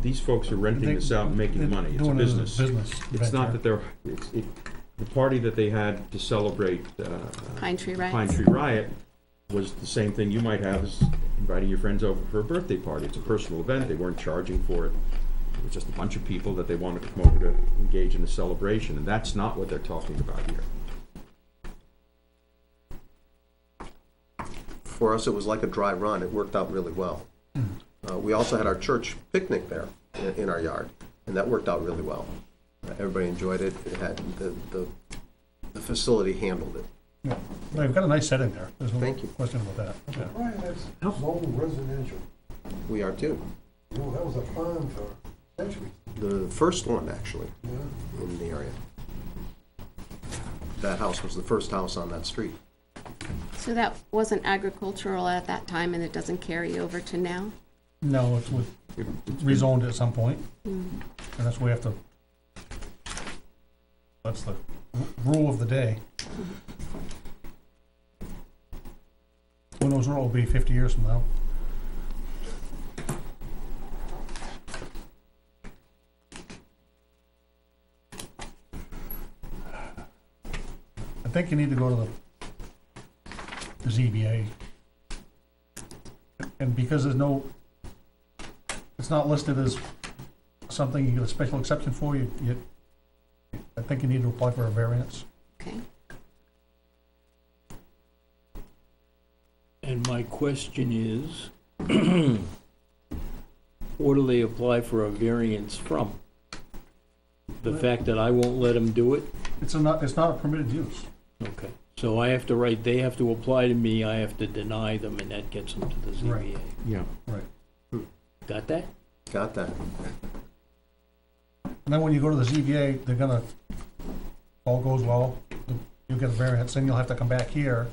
these folks are renting They- this out and making they're money. It's a doing business. Business. It's not venture. that they're, it's, it, the party that they had to celebrate, uh, Pine Tree Pine Riot. Tree Riot was the same thing you might have as inviting your friends over for a birthday party. It's a personal event. They weren't charging for it. It was just a bunch of people that they wanted to come over to engage in a celebration, and that's not what they're talking about here. For us, it was like a dry run. It worked out really well. Uh, we also had our church picnic there in, in our yard, and that worked out really well. Uh, everybody enjoyed it. It had the, the, the facility handled it. Yeah. No, you've got a nice setting there. There's no Thank you. question about that. Yeah. Brian, that's zone residential. We are too. You know, that was a farm for centuries. The first one, actually, you know? in the area. That house was the first house on that street. So that wasn't agricultural at that time, and it doesn't carry over to now? No, it's was rezoned at some point, and that's why we have to, that's the r- rule of the day. Who knows where it'll be fifty years from now? I think you need to go to the- the ZBA. And because there's no it's not listed as something you get a special exception for, you, you, I think you need to apply for a variance. Okay. And my question is, what do they apply for a variance from? The fact that I won't let them do it? It's a not, it's not a permitted use. Okay. So I have to write, they have to apply to me, I have to deny them, and that gets them to the Right. ZBA. Yeah. Right. Got that? Got that? And then when you go to the ZBA, they're gonna, all goes well, you get a variance, then you'll have to come back here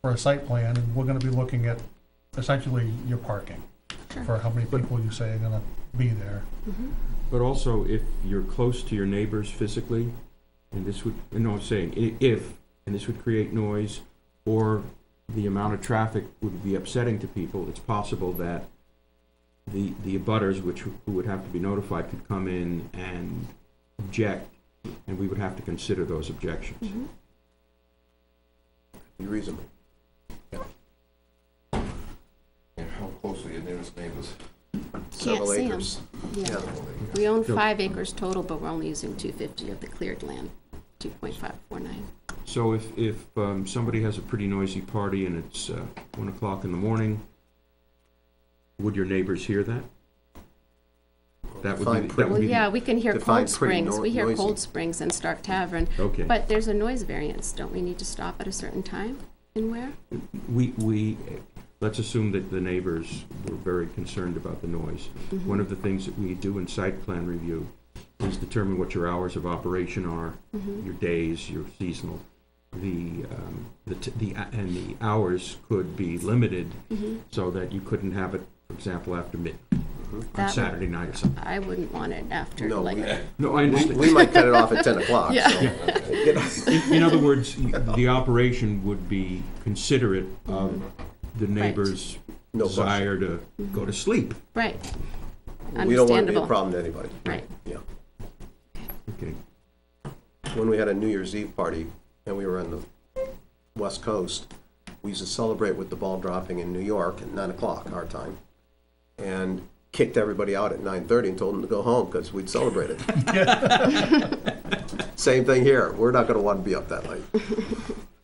for a site plan, and we're gonna be looking at essentially your parking. For how many people you say are gonna be there. But also, if you're close to your neighbors physically, and this would, and no, I'm saying, i- if, and this would create noise, or the amount of traffic would be upsetting to people, it's possible that the, the abutters, which w- who would have to be notified, could come in and object, and we would have to consider those objections. Be reasonable. And how close are your nearest neighbors? Several see 'em. acres. Yeah. Yeah. We own Sure. five acres total, but we're only using 250 of the cleared land, 2.549. So if, if um, somebody has a pretty noisy party and it's uh, one o'clock in the morning, would your neighbors hear that? That would be, Fine the- that would print. Well, be the yeah, we can hear Define Cold pretty Springs, no- we hear noisy. Cold Springs and Stark Tavern. Okay. But there's a noise variance, don't we need to stop at a certain time and where? We, we, let's assume that the neighbors were very concerned about the noise. Mm-hmm. One of the things that we do in site plan review is determine what your hours of operation are, Mm-hmm. your days, your seasonal. The, um, the, t- the, and the hours could be limited Mm-hmm. so that you couldn't have it, for example, after mid, on Mm-hmm. That- Saturday night or something. I wouldn't want it after, No, like, we, No, I we- understand. we might cut it off at ten o'clock, Yeah. so. you know. In in other words, the operation would be considerate of Mm-hmm. the neighbor's No question. desire to go to sleep. right. We don't want to be a Understandable. problem to anybody. Right. Yeah. Okay. when we had a New Year's Eve party and we were on the West Coast, we used to celebrate with the ball dropping in New York at nine o'clock our time, and kicked everybody out at nine thirty and told them to go home because we'd celebrated. Same thing here. We're not going to want to be up that late.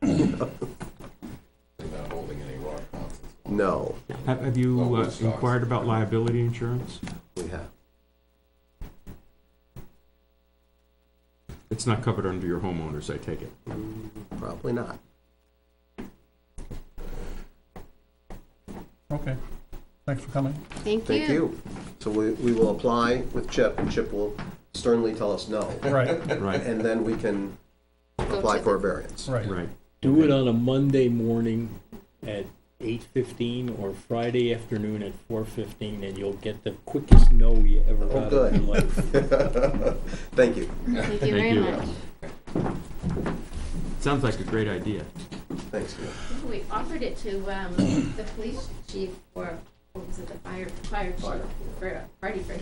They're not holding any rock concerts. No, Have have you Well, uh, it's not. inquired about liability insurance? we have. It's not covered under your homeowners, I take it. Probably not. Okay, thanks for coming. Thank Thank you. you. So we, we will apply with Chip, and Chip will sternly tell us no. Right, Right, And then we can Go apply to for a the- variance. right. right. Do it on a Monday morning at eight fifteen or Friday afternoon at four fifteen, and you'll get the quickest no you ever Oh, got good. in your life. Thank Thank you. you Thank very you. much. Sounds like a great idea. Thanks. Neil. We offered it to um, the police chief or, what was it, the fire, fire chief, for a party for him.